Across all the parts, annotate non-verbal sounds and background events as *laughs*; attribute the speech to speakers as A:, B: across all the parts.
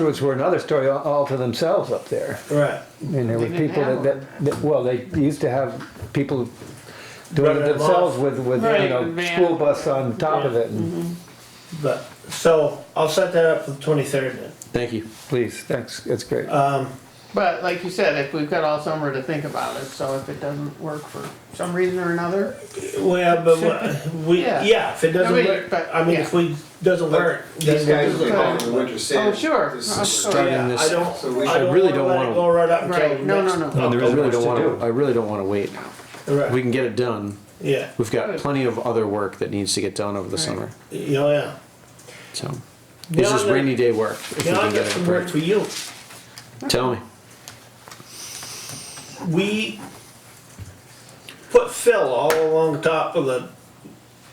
A: Roots were another story all- all to themselves up there.
B: Right.
A: And there were
C: didn't
A: people that,
C: have
A: that, that, well, they used to have people doing
B: Running
A: it
B: them
A: themselves
B: off.
A: with, with, you
C: Right,
A: know,
C: with van. Mm-hmm.
A: school bus on top of it, and,
B: But, so I'll set that up for the twenty-third then.
D: Thank you.
A: please, thanks, that's great.
B: Um,
C: But like you said, if we've got all summer to think about it, so if it doesn't work for some reason or another,
B: well, but what- we,
C: Yeah.
B: yeah, if it doesn't
C: Nobody-
B: work,
C: but-
B: I mean, if we, doesn't work.
E: These
B: then
E: guys
B: we'll
E: will be
B: do
E: home
B: it.
E: in winter sand.
C: Oh, sure.
E: This
C: Oh,
E: is
C: sure.
E: starting
B: Yeah,
D: this-
B: I don't,
E: So we
B: I
E: should-
B: don't
D: I really
B: wanna
D: don't
B: let it
D: wanna-
B: go right up
C: right,
B: until
C: no, no,
B: next.
C: no.
D: I really
A: much
D: don't
A: to
D: want
A: do.
D: to, I really don't want to wait. We
B: Right,
D: can get it done.
B: yeah,
D: We've got plenty of other work that needs to get done over the
C: Right.
D: summer,
B: yeah, Oh, yeah.
D: so.
B: Yeah,
D: This is
B: I'm gonna-
D: rainy day work. if we
B: Now I
D: can
B: got
D: get it
B: some work
D: approved.
B: for you.
D: Tell me.
B: We put fill all along the top of the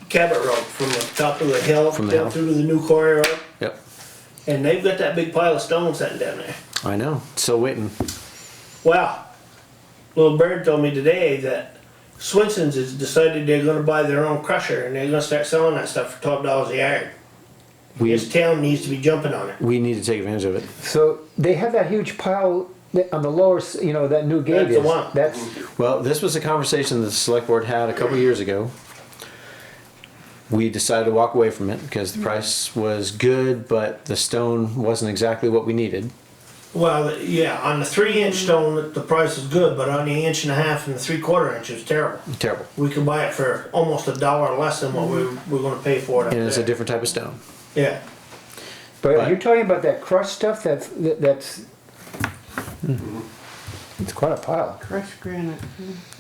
B: Cabot Road, from the top of the hill
D: From the
B: down
D: hill.
B: through to the new quarry road.
D: Yep,
B: And they've got that big pile of stone sitting down there.
D: I know, still waiting.
B: Wow. Little Bird told me today that Swenson's has decided they're gonna buy their own crusher and they're gonna start selling that stuff for twelve dollars a yard.
D: We,
B: This town needs to be jumping on it.
D: we need to take advantage of it.
A: So they have that huge pile that- on the lower, s- you know, that new gate
B: That's the
A: is,
B: one.
A: that's,
D: Well, this was a conversation that the select board had a couple years ago. We decided to walk away from it because
B: Mm-hmm.
D: the price was good, but the stone wasn't exactly what we needed.
B: Well, yeah, on the three inch stone, the price is good, but on the inch and a half and the three quarter inch, it's terrible.
D: Terrible.
B: We could buy it for almost a dollar less than what we, we're gonna pay for it up
D: And it's a
B: there.
D: different type of stone.
B: Yeah,
A: but are
D: But-
A: you talking about that crushed stuff that's, that- that's,
B: Mm-hmm.
A: it's quite a pile.
C: crushed granite.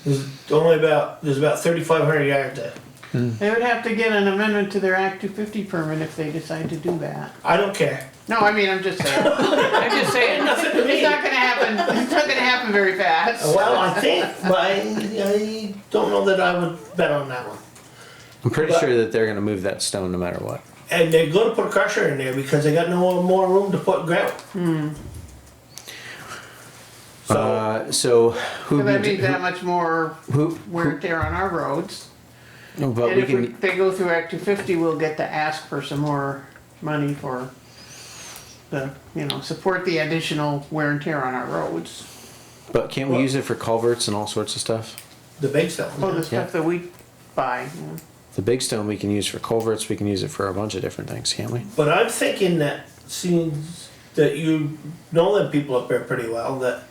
B: there's only about, there's about thirty-five hundred yards there.
C: They would have to get an amendment to their Act two fifty permit if they decide to do that.
B: I don't care.
C: No, I mean, I'm just saying, I'm just saying, it's not gonna happen, it's not gonna happen very fast.
B: Well, I think, but I, I don't know that I would bet on that one.
D: I'm pretty
B: But-
D: sure that they're gonna move that stone no matter what.
B: And they're gonna put a crusher in there because they got no more room to put gravel. So,
D: Hmm. Uh, so who,
C: So that
D: need-
C: means that much more
D: who,
C: wear
D: who,
C: and tear on our roads.
D: no, but
C: And
D: we
C: if we-
D: can,
C: they go through Act two fifty, we'll get to ask for some more money for the, you know, support the additional wear and tear on our roads.
D: but can't we use it for culverts and all sorts of stuff?
B: the big
C: Oh, the
B: stuff,
C: stuff that we buy, yeah.
D: The big stone we can use for culverts, we can use it for a bunch of different things, can't we?
B: but I'm thinking that since that you know them people up there pretty well, that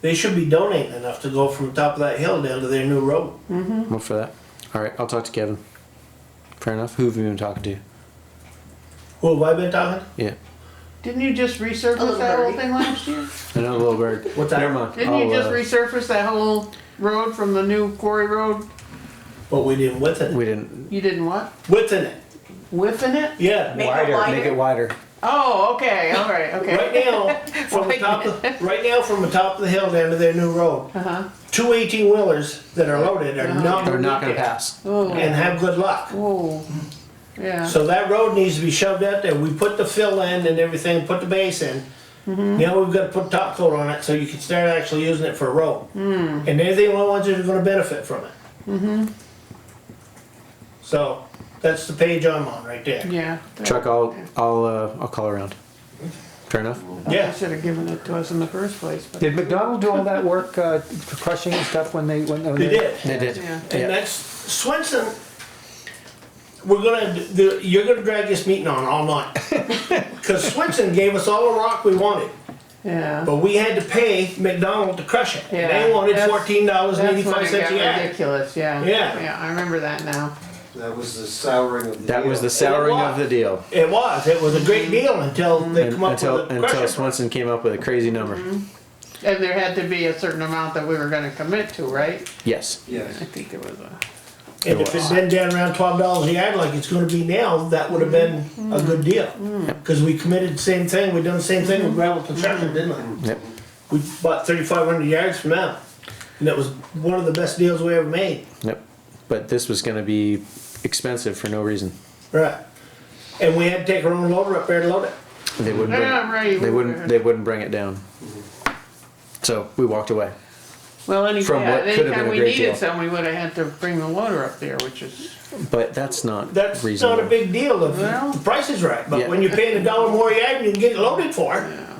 B: they should be donating enough to go from the top of that hill down to their new road.
C: Hmm. Mm-hmm.
D: I'm up for that. All right, I'll talk to Kevin. Fair enough. Who have you been talking to?
B: Who have I been talking?
D: Yeah,
C: Didn't you just resurface
F: Hello,
C: that whole
F: Barry.
C: thing last
D: *laughs*
C: year?
D: another little bird.
B: What's that?
D: Never mind.
C: Didn't you
D: I'll,
C: just
D: uh,
C: resurface that whole road from the new quarry road?
B: But we didn't within
D: we
B: it.
D: didn't
C: You didn't what?
B: Within it,
C: Whiffing it?
B: yeah.
F: Make it
D: make it wider.
C: Oh, okay, all
D: *laughs*
C: right,
B: Right
C: okay. *laughs*
B: now, from the top of, right now, from the top of the hill down to their new road,
C: Uh-huh.
B: two eighteen wheelers that are loaded are not
D: They're
B: gonna
D: not
B: make
D: gonna
B: it.
D: pass.
C: Oh,
B: and have good luck.
C: whoa, yeah.
B: So that road needs to be shoved out there. We put the fill in and everything, put the base in.
C: Mm-hmm.
B: Now we've got to put top coat on it so you can start actually using it for a road.
C: Hmm.
B: And they're the only ones that are gonna benefit from it.
C: Mm-hmm.
B: So, that's the page I'm on right there.
C: Yeah.
D: Chuck, I'll I'll uh, I'll call around. Fair enough.
C: They
B: Yeah,
C: should have given it to us in the first place, but,
A: Did McDonald do all that work, uh, for crushing and stuff when they, when?
B: they did.
D: They did.
C: Yeah.
B: And that's, Swenson, we're gonna, the- you're gonna drag this meeting on all
D: *laughs*
B: night. Cause Swenson gave us all the rock we wanted.
C: yeah.
B: But we had to pay McDonald to crush it. And
C: Yeah,
B: They wanted
C: that's-
B: fourteen dollars and
C: That's when
B: eighty-five
C: it
B: cents
C: got
B: a yard.
C: ridiculous, yeah.
B: Yeah.
C: Yeah, I remember that now.
E: That was the souring of the.
D: That was
E: deal.
D: the souring of the deal
B: It was, it was a
C: Mm-hmm.
B: great deal until they come up with
D: until
B: a
D: until
B: crusher.
D: Swenson came up with a crazy number.
C: And there had to be a certain amount that we were gonna commit to, right?
D: Yes,
E: Yes.
C: I think there was a.
B: And if it'd been down around twelve dollars a yard like it's gonna be now, that would have been a
C: Mm-hmm.
B: good deal. Cause we committed the same thing, we done the same thing with
C: Mm-hmm.
B: gravel construction, didn't we?
D: Yep.
B: We bought thirty-five hundred yards from them. And that was one of the best deals we ever made.
D: yep. But this was going to be expensive for no reason.
B: Right. And we had to take our own loader up there to load it.
D: They wouldn't. Bring,
C: Yeah, right.
D: They wouldn't. They wouldn't bring it down. So we walked away.
C: Well, any,
D: From
C: yeah,
D: what could have been
C: anytime
D: a
C: we
D: great deal.
C: needed some, we would have had to bring the loader up there, which is,
D: But that's not
B: That's
D: reasonable.
B: not a big deal if
C: Well-
B: the price is right, but
D: Yeah.
B: when you're paying a dollar more a yard, you can get it loaded for. it.